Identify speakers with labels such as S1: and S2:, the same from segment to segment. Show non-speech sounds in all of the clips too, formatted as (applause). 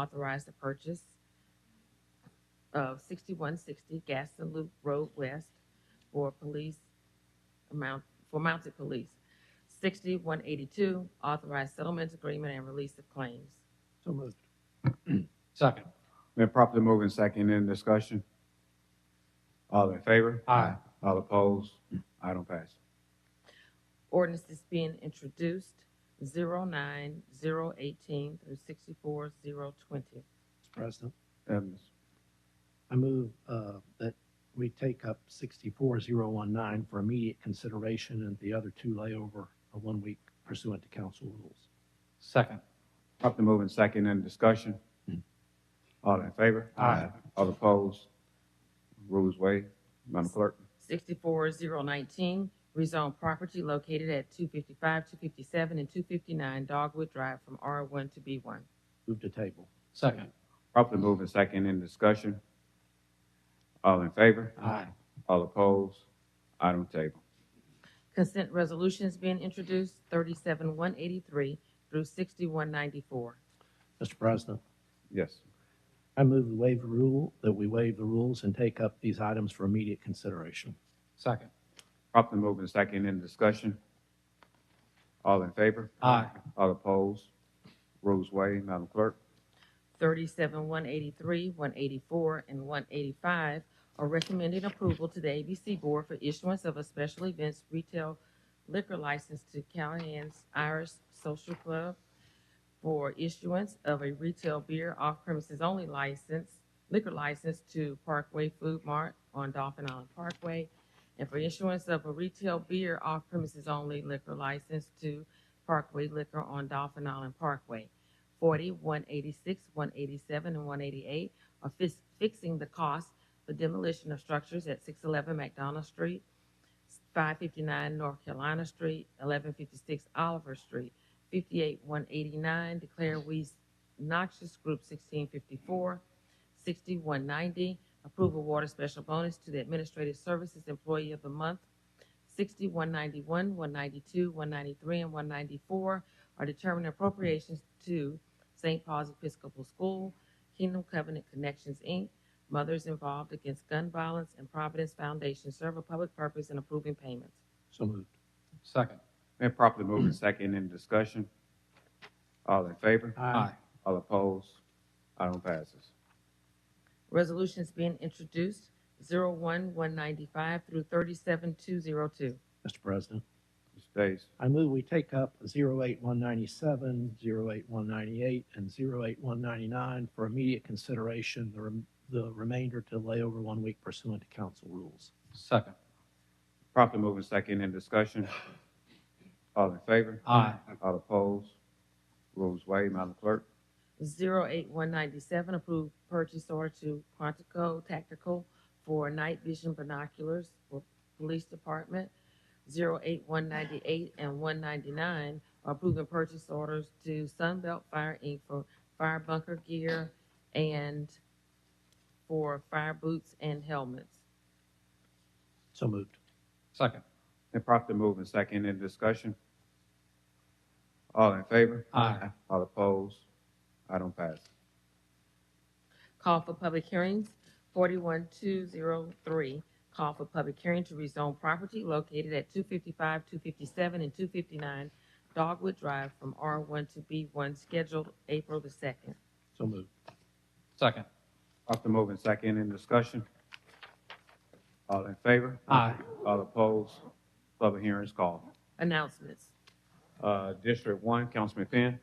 S1: authorize the purchase of sixty-one sixty Gaston Loop Road West for police amount, for mounted police. Sixty-one eighty-two, authorize settlement agreement and release of claims.
S2: So moved.
S3: (clears throat) Second.
S4: Been properly moving second in discussion. All in favor?
S3: Aye.
S4: All opposed? Item pass.
S1: Ordinance is being introduced, zero nine, zero eighteen through sixty-four, zero twenty.
S2: Mr. President,
S4: Um,
S2: I move uh, that we take up 64019 for immediate consideration and the other two lay over a one week pursuant to council rules.
S3: Second.
S4: Properly moving second in discussion. All in favor?
S3: Aye.
S4: All opposed? Rules waived. Madam Clerk.
S1: Sixty-four, zero nineteen, rezone property located at two fifty-five, two fifty-seven, and two fifty-nine Dogwood Drive from R one to B one.
S2: Move to table.
S3: Second.
S4: Properly moving second in discussion. All in favor?
S3: Aye.
S4: All opposed? Item table.
S1: Consent resolutions being introduced, thirty-seven, one eighty-three through sixty-one ninety-four.
S2: Mr. President,
S4: Yes.
S2: I move the waive the rule, that we waive the rules and take up these items for immediate consideration.
S3: Second.
S4: Properly moving second in discussion. All in favor?
S3: Aye.
S4: All opposed? Rules waived. Madam Clerk.
S1: Thirty-seven, one eighty-three, one eighty-four, and one eighty-five are recommending approval to the ABC Board for issuance of a special events retail liquor license to Callahan's Irish Social Club for issuance of a retail beer off premises only license, liquor license to Parkway Food Mart on Dolphin Island Parkway, and for issuance of a retail beer off premises only liquor license to Parkway Liquor on Dolphin Island Parkway. 40, 186, 187, and 188 are fis- fixing the cost for demolition of structures at 611 McDonald Street, 559 North Carolina Street, 1156 Oliver Street, 58, 189, declare weeds noxious group 1654, 6190, approve award of special bonus to the Administrative Services Employee of the Month, 6191, 192, 193, and 194, are determining appropriations to St. Paul's Episcopal School, Kingdom Covenant Connections, Inc., Mothers Involved Against Gun Violence, and Providence Foundation serve a public purpose in approving payments.
S2: So moved.
S3: Second.
S4: Been properly moving second in discussion. All in favor?
S3: Aye.
S4: All opposed? Item passes.
S1: Resolutions being introduced, 01195 through 37202.
S2: Mr. President,
S4: Mr. Days,
S2: I move we take up 08197, 08198, and 08199 for immediate consideration, the rem- the remainder to lay over one week pursuant to council rules.
S3: Second.
S4: properly moving second in discussion. All in favor?
S3: Aye.
S4: All opposed? Rules waived. Madam Clerk.
S1: 08197, approved purchase order to Quantico Tactical for night vision binoculars for Police Department. 08198 and 199 are approving purchase orders to Sunbelt Fire Inc. for fire bunker gear and for fire boots and helmets.
S2: So moved.
S3: Second.
S4: Been properly moving second in discussion. All in favor?
S3: Aye.
S4: All opposed? Item passes.
S1: Call for public hearings, 41203. Call for public hearing to rezone property located at 255, 257, and 259 Dogwood Drive from R1 to B1, scheduled April the 2nd.
S2: So moved.
S3: Second.
S4: Properly moving second in discussion. All in favor?
S3: Aye.
S4: All opposed? Public hearing is called.
S1: Announcements.
S4: Uh, District one, Councilman Penn.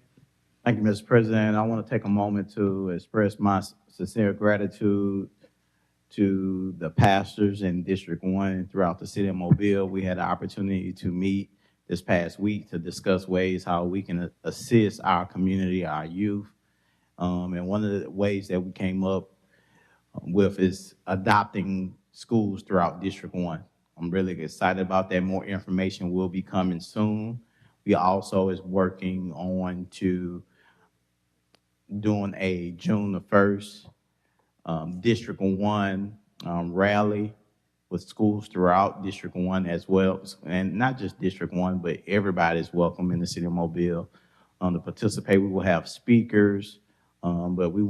S5: Thank you, Mr. President. I want to take a moment to express my sincere gratitude to the pastors in District One throughout the city of Mobile. We had an opportunity to meet this past week to discuss ways how we can assist our community, our youth. Um, and one of the ways that we came up with is adopting schools throughout District One. I'm really excited about that. More information will be coming soon. We also is working on to doing a June the first, um, District One, um, rally with schools throughout District One as well. And not just District One, but everybody is welcome in the city of Mobile, um, to participate. We will have speakers, Um, but we